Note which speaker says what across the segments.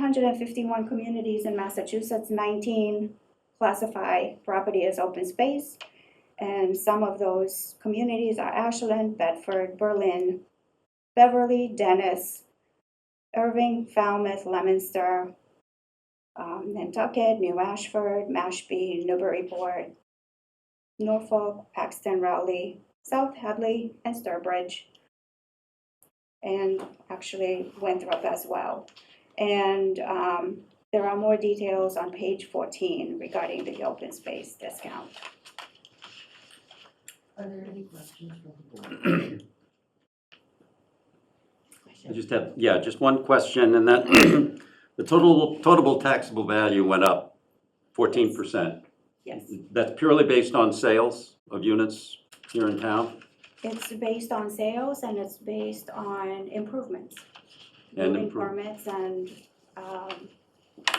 Speaker 1: hundred and fifty-one communities in Massachusetts, nineteen classify property as open space. And some of those communities are Ashland, Bedford, Berlin, Beverly, Dennis, Irving, Falmouth, Leominster, um, Nantucket, New Ashford, Mashpee, Newburyport, Norfolk, Paxton, Rowley, South Hadley, and Sturbridge. And actually Winthrop as well. And um, there are more details on page 14 regarding the open space discount.
Speaker 2: Are there any questions from the board?
Speaker 3: I just have, yeah, just one question, and that, the total, totable taxable value went up fourteen percent.
Speaker 1: Yes.
Speaker 3: That's purely based on sales of units here in town?
Speaker 1: It's based on sales and it's based on improvements.
Speaker 3: And
Speaker 1: Building
Speaker 3: improve-
Speaker 1: permits and um,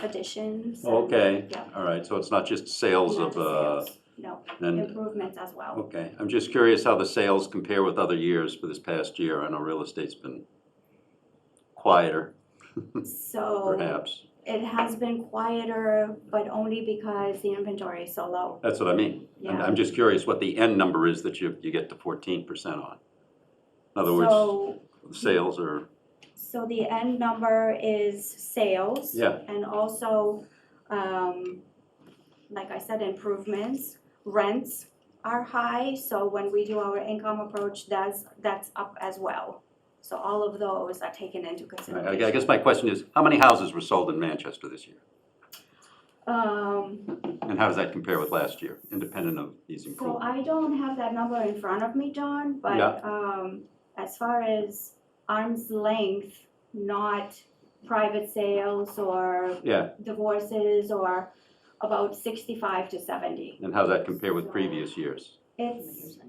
Speaker 1: additions. and-
Speaker 3: Okay,
Speaker 1: Yeah.
Speaker 3: all right, so it's not just sales
Speaker 1: Not
Speaker 3: of,
Speaker 1: just
Speaker 3: uh,
Speaker 1: sales, No,
Speaker 3: and,
Speaker 1: improvements as well.
Speaker 3: okay. I'm just curious how the sales compare with other years for this past year. I know real estate's been quieter,
Speaker 1: So.
Speaker 3: perhaps.
Speaker 1: It has been quieter, but only because the inventory is so low.
Speaker 3: That's what I mean. I'm,
Speaker 1: Yeah.
Speaker 3: I'm just curious what the end number is that you, you get to fourteen percent on. In other words,
Speaker 1: So,
Speaker 3: sales are,
Speaker 1: so the end number is sales.
Speaker 3: yeah,
Speaker 1: And also, um, like I said, improvements, rents are high, so when we do our income approach, that's, that's up as well. So all of those are taken into
Speaker 3: I I
Speaker 1: consideration.
Speaker 3: guess my question is, how many houses were sold in Manchester this year?
Speaker 1: Um,
Speaker 3: And how does that compare with last year, independent of these
Speaker 1: So
Speaker 3: improvements?
Speaker 1: I don't have that number in front of me, John,
Speaker 3: Yeah.
Speaker 1: but um as far as arm's length, not private sales or
Speaker 3: Yeah,
Speaker 1: divorces or about sixty-five to seventy.
Speaker 3: and how does that compare with previous years?
Speaker 1: It's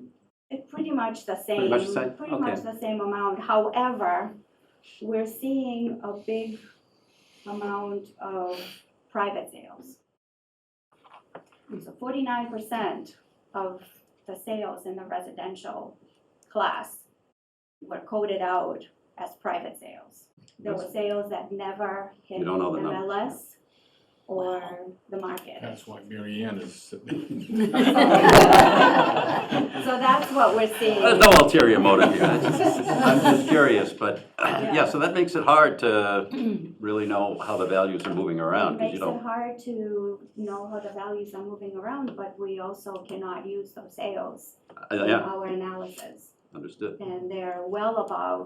Speaker 1: it's pretty much the same.
Speaker 3: Pretty much the same?
Speaker 1: pretty much the same amount. However, we're seeing a big amount of private sales. So forty-nine percent of the sales in the residential class were coded out as private sales. There were sales that never hit
Speaker 3: You don't know the number.
Speaker 1: MLS or the market.
Speaker 4: That's why Mary Ann is
Speaker 1: So that's what we're seeing.
Speaker 3: There's no ulterior motive here, I'm just- I'm just curious, but, yeah, so that makes it hard to really know how the values are moving around, because
Speaker 1: It
Speaker 3: you
Speaker 1: makes it
Speaker 3: don't,
Speaker 1: hard to know how the values are moving around, but we also cannot use those sales
Speaker 3: I-
Speaker 1: in
Speaker 3: uh, yeah,
Speaker 1: our analysis.
Speaker 3: understood.
Speaker 1: And they're well above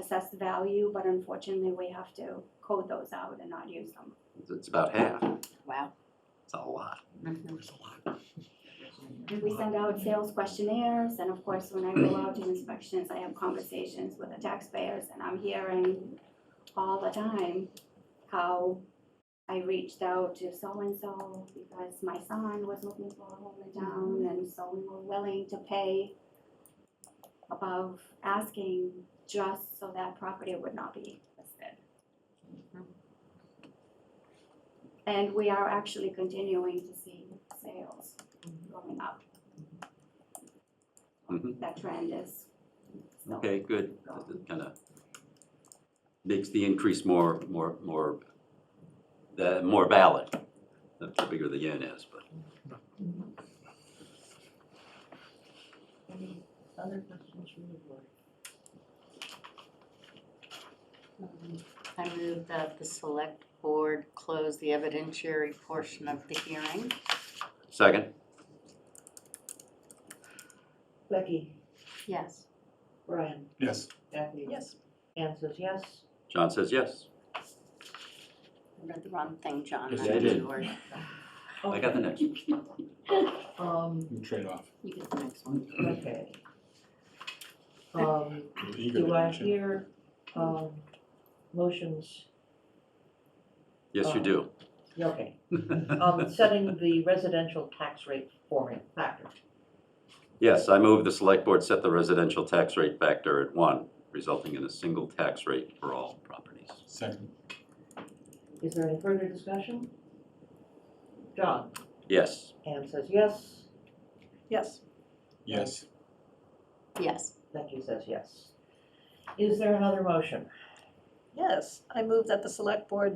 Speaker 1: assessed value, but unfortunately, we have to code those out and not use them.
Speaker 3: It's- It's about half,
Speaker 5: Wow.
Speaker 3: it's a lot.
Speaker 1: And we send out sales questionnaires, and of course, when I go out to inspections, I have conversations with the taxpayers, and I'm hearing all the time how I reached out to so-and-so because my son was looking for a home in town, and so we were willing to pay above asking just so that property would not be listed. And we are actually continuing to see sales going up.
Speaker 3: Mhm.
Speaker 1: That trend is. still
Speaker 3: Okay, good, that kind of makes the increase more, more, more, the, more valid, the the bigger the yen is, but.
Speaker 2: Any other questions from the board?
Speaker 5: I move that the select board close the evidentiary portion of the hearing.
Speaker 3: Second?
Speaker 2: Becky,
Speaker 5: Yes.
Speaker 2: Brian,
Speaker 4: Yes.
Speaker 2: Kathy. Yes. Anne says yes.
Speaker 3: John says yes.
Speaker 5: I read the wrong thing, John.
Speaker 4: Yes,
Speaker 5: not
Speaker 4: you
Speaker 5: the
Speaker 3: did.
Speaker 5: word.
Speaker 3: I got the next one.
Speaker 2: Um,
Speaker 4: Trade off.
Speaker 5: You get the next one.
Speaker 2: okay. Um, do I hear, um, motions,
Speaker 3: Yes, you do.
Speaker 2: Yeah, okay, um, setting the residential tax rate formula factor.
Speaker 3: Yes, I move the select board set the residential tax rate factor at one, resulting in a single tax rate for all properties.
Speaker 4: Second.
Speaker 2: Is there any further discussion? John,
Speaker 3: Yes.
Speaker 2: Anne says yes.
Speaker 5: Yes.
Speaker 4: Yes.
Speaker 5: Yes.
Speaker 2: Becky says yes. Is there another motion?
Speaker 6: Yes, I move that the select board